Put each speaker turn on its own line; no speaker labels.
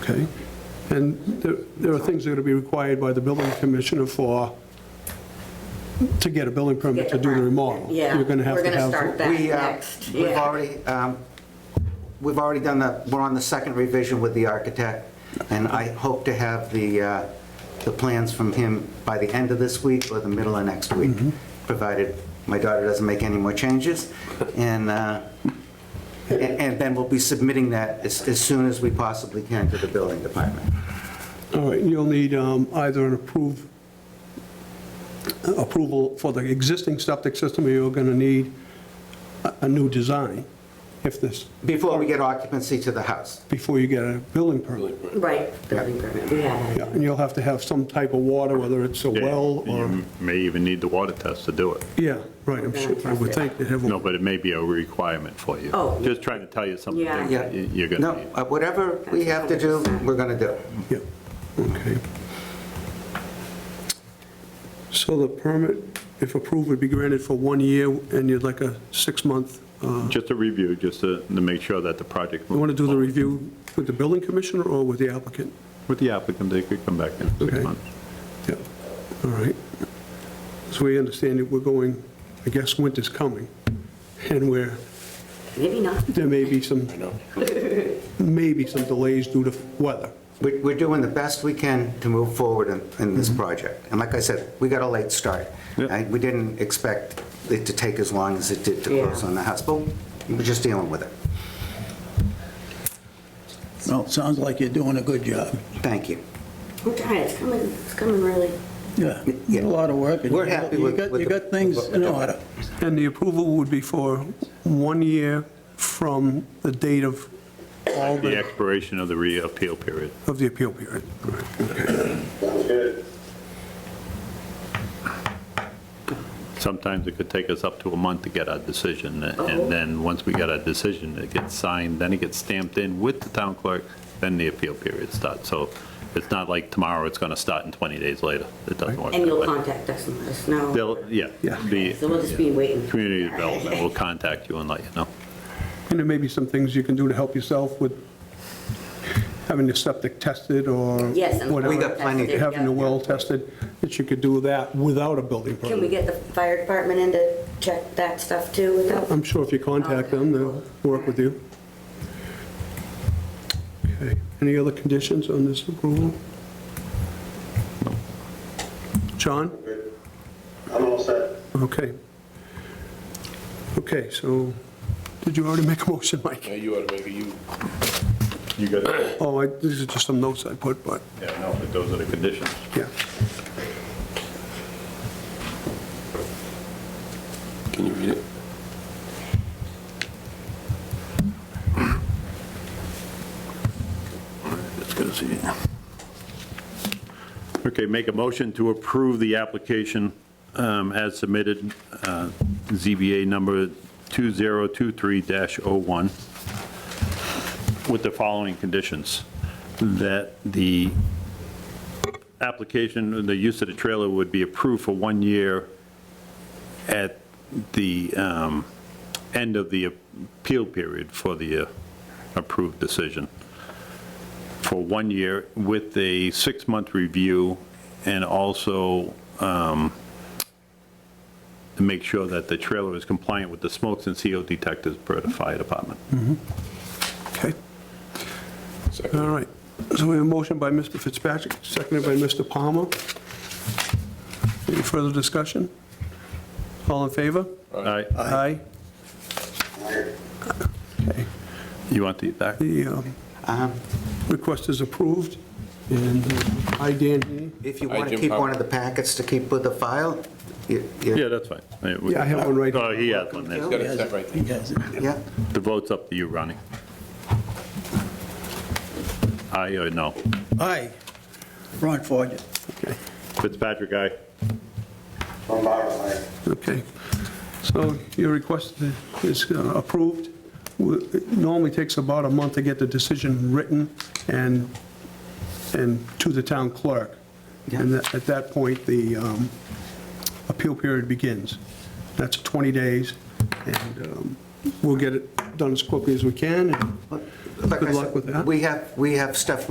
okay? And there there are things that are going to be required by the building commissioner for, to get a building permit to do the remodel.
Yeah,
You're going to have
we're
to
gonna
have.
start that
We, uh,
next.
We've
yeah.
already, um, we've already done the, we're on the second revision with the architect, and I hope to have the, uh, the plans from him by the end of this week or the middle of next week,
Mm-hmm.
provided my daughter doesn't make any more changes. And, uh, and- and then we'll be submitting that as, as soon as we possibly can to the building department.
All right, you'll need um, either an approved, approval for the existing septic system, or you're going to need a- a new design if this,
Before we get occupancy to the house.
before you get a building permit.
Right, building permit, we have
Yeah,
that.
and you'll have to have some type of water, whether it's a
Yeah, Mm-hmm.
well or,
You may even need the water test to do it.
yeah, right, I'm sure, I would think they have. a-
No, but it may be a requirement for you.
Oh.
Just trying to tell you something
Yeah.
that
Yeah.
you- you're
No,
gonna need.
uh, whatever we have to do, we're gonna do.
Yeah, okay. So the permit, if approved, would be granted for one year, and you'd like a six-month, uh,
Just a review, just to to make sure that the project.
you want to do the review with the building commissioner or with the applicant?
With the applicant, they could come back in
Okay.
six months.
Yeah, all right. So we understand that we're going, I guess winter's coming, and we're,
Maybe not.
there may be some, maybe some delays due to weather.
We- We're doing the best we can to move forward in- in this
Mm-hmm.
project. And like I said, we got a late start.
Yeah.
And We didn't expect it to take as long as it did to close
Yeah.
on the house, but we're just dealing with it.
Well, it sounds like you're doing a good job.
Thank you.
I'm trying, it's coming, it's coming really.
Yeah,
Yeah.
a lot of work. and
We're
you
happy
got-
with-
you got-
with
You
the-
got things in order.
And the approval would be for one year from the date of all
The
the,
expiration of the reappeal period.
of the appeal period.
Sometimes it could take us up to a month to get our decision,
Uh-oh.
and then, once we get our decision, it gets signed, then it gets stamped in with the town clerk, then the appeal period starts. So it's not like tomorrow it's going to start and 20 days later. It doesn't work.
And
that
you'll
way.
contact us and let us know.
They'll, yeah.
Yeah.
the-
So we'll just be waiting.
Community Development will contact you and let you know.
And there may be some things you can do to help yourself with having your septic tested or
Yes, and-
whatever.
We got plenty to-
Having your well tested, that you could do that without a building permit.
Can we get the fire department in to check that stuff too without?
I'm sure if you contact them, they'll work with you. Okay. Any other conditions on this approval? John?
I'm all set.
Okay. Okay, so, did you already make a motion, Mike?
Yeah, you ought to make it, you,
You got it.
Oh, I- these are just some notes I put, but,
Yeah, no, but those are the conditions.
yeah.
can you read it?
Let's go see it. Okay, make a motion to approve the application um, as submitted, uh, ZBA number 2023-01, with the following conditions. That the application, the use of the trailer would be approved for one year at the um, end of the appeal period for the uh, approved decision for one year with a six-month review and also um, to make sure that the trailer is compliant with the smokes and CO detectors per the fire department.
Okay,
Second.
all right. So we have a motion by Mr. Fitzpatrick, seconded by Mr. Palmer. Any further discussion? All in favor?
All right,
Aye.
you want to eat that?
The um,
Um,
request is approved, and uh, I, Dan Heaney.
If you
Hi,
want to
Jim
keep
Pop-
one of the packets to keep with the file, you- you-
Yeah, that's fine. we-
Yeah, I have one right here.
Oh, he has one there.
Got it set right there.
He has it.
yeah,
The vote's up to you, Ronnie. Aye or no?
Aye, Ron Forget.
Fitzpatrick, aye.
From Byron, Lane.
Okay, so your request is uh, approved. It Normally takes about a month to get the decision written and, and to the town clerk. And that- at that point, the um, appeal period begins. That's 20 days, and um, we'll get it done as quickly as we can. and
like I
Good luck
said,
with that.
We have, we have stuff